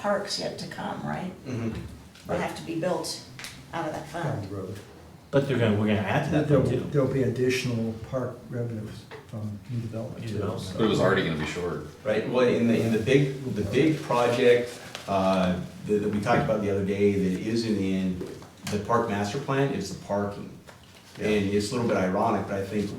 park's yet to come, right? Mhm. Would have to be built out of that down fund. the road. But they're gonna, we're gonna add to that There'll, though too. there'll be additional park revenues from new development. New too, development. so- But it was already gonna be short. Right, well, in the, in the big, the big project, uh, that, that we talked about the other day, that is in the end, the park master plan is the parking. And it's a little bit ironic, but I think,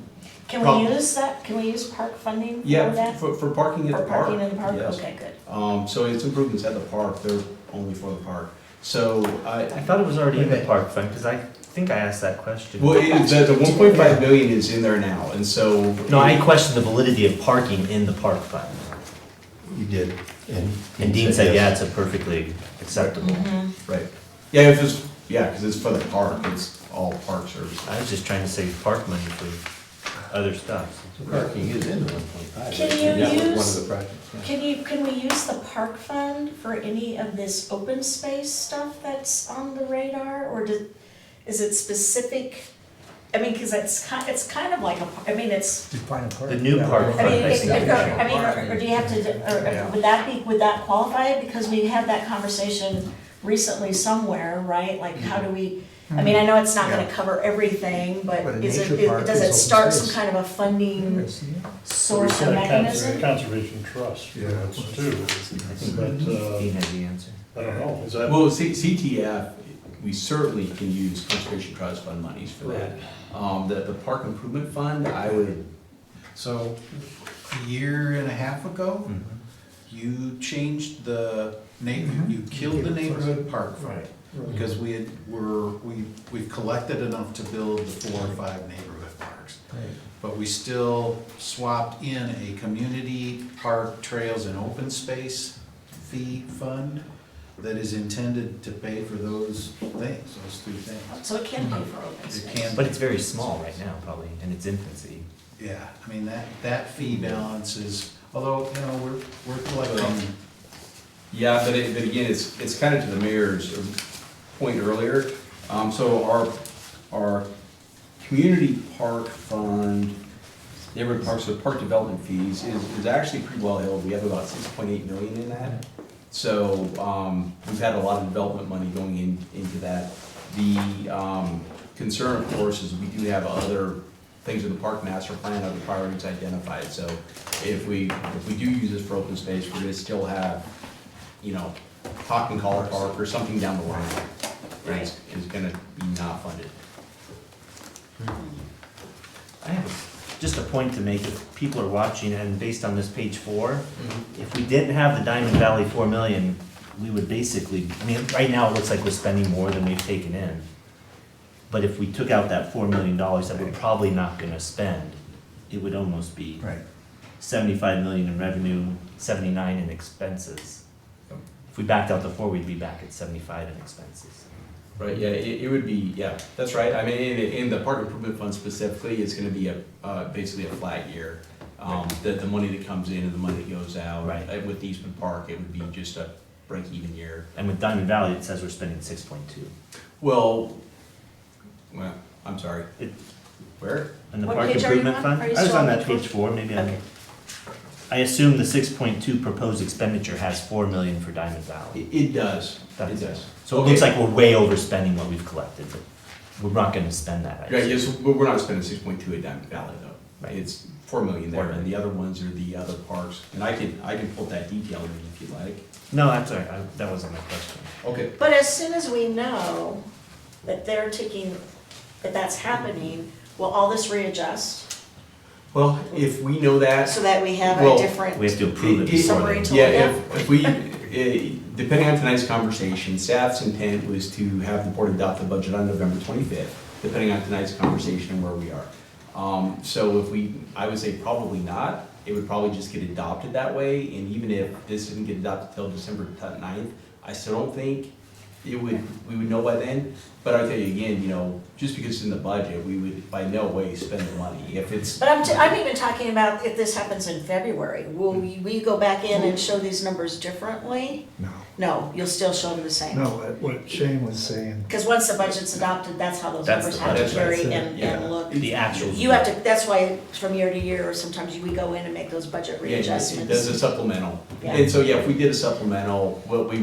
Can Prob- we use that, can we use park funding for yeah, that? for, for parking at For the park. parking in the park, yes. okay, good. Um, so it's improvements at the park, they're only for the park. So, I I, thought it was already in the Okay. park fund, cause I think I asked that question. well, it, the, the one point five million is in there now, and so. No, I questioned the validity of parking in the park fund. You did, and. And Dean said, yeah, it's a perfectly acceptable. Mm-hmm. Right, yeah, if it's, yeah, cause it's for the park, it's all park service. I was just trying to save park money for other stuff. So Parking is in the one point five. Can you One use- of the projects, yeah. Can you, can we use the park fund for any of this open space stuff that's on the radar, or does, is it specific? I mean, cause it's kind, it's kind of like a, par- I mean, it's, Define a park. The new Yeah. park. I mean, I if- see. if- I mean, or- or do you have to, or- or would that be, would that qualify? Because we had that conversation recently somewhere, right? Like, how do we, I mean, I know it's not gonna cover everything, but But a is it, nature it- park does is it open start some space. kind of a funding Yes, yeah. source or We've got a cons- mechanism? Conservation trust, Yeah. too, but, Dean uh, had the answer. I don't know, is that, Well, C- CTF, we certainly can use conservation trust fund monies for that. Um, the, the park improvement fund, I would, So, a year and a half oh, ago, Mhm. you changed the name, Mhm. you killed the neighborhood park fund. Right. Because we had, we're, we, we've collected enough to build the four or five neighborhood parks. Right. But we still swapped in a community park trails and open space fee fund that is intended to pay for those things, those three things. So it can pay for open It space. can- But it's very small right now, probably, in its infancy. Yeah, I mean, that, that fee balance is, although, you know, we're, we're collecting yeah, but it, but again, it's, it's kind of to the mayor's point earlier. Um, so our, our community park fund, neighborhood parks, so park development fees is, is actually pretty well held. We have about six point eight million in that. So, um, we've had a lot of development money going in, into that. The, um, concern, of course, is we do have other things in the park master plan, other priorities identified. So if we, if we do use this for open space, we're gonna still have, you know, Hawk and Collar Park or something down the line. Is, is gonna be not funded. I have just a point to make, if people are watching, and based on this page four, if we didn't have the Diamond Valley four million, we would basically, I mean, right now, it looks like we're spending more than we've taken in. But if we took out that four million dollars that we're probably not gonna spend, it would almost be Right. seventy-five million in revenue, seventy-nine in expenses. If we backed out the four, we'd be back at seventy-five in expenses. Right, yeah, it, it would be, yeah, that's right. I mean, in, in the park improvement fund specifically, it's gonna be a, uh, basically a flat year. Um, the, the money that comes in and the money that goes out. Right. Uh, With Eastman Park, it would be just a break-even year. And with Diamond Valley, it says we're spending six point two. Well, well, I'm sorry, It, where? And the What park page are you improvement on? fund? Are you I was still on on that page four? page four, maybe Okay. I'm. I assume the six point two proposed expenditure has four million for Diamond Valley. It, it does, it That's- does. So it looks Okay. like we're way overspending what we've collected, but we're not gonna spend that. I Yeah, assume. yes, but we're not spending six point two at Diamond Valley though. Right. It's four million there, Four and the other ones are the other parks, and I can, I can pull that detail in if you like. No, that's all right, I- that wasn't my question. Okay. But as soon as we know that they're taking, that that's happening, will all this readjust? Well, if we know that. So that we have a Well, different. We have to approve it It- it- before Summary then. to- Yeah, if, if we, eh, depending on tonight's conversation, staff's intent was to have the board adopt the budget on November twenty-fifth, depending on tonight's conversation and where we are. Um, so if we, I would say probably not, it would probably just get adopted that way, and even if this didn't get adopted till December 9th, I still don't think it would, we would know by then, but I'll tell you again, you know, just because it's in the budget, we would by no way spend the money, if it's. But I'm, t- I'm even talking about if this happens in February, will we, we go back in and show these numbers differently? No, No, you'll still show them the same. no, what- what Shane was saying, Because once the budget's adopted, that's how those That's numbers the have to budget. carry That's it. and, Yeah. and look. The actual. You have to, that's why from year to year, or sometimes we go in and make those budget Yeah, it- it readjustments. Does a supplemental. Yeah. And so, yeah, if we did a supplemental, what we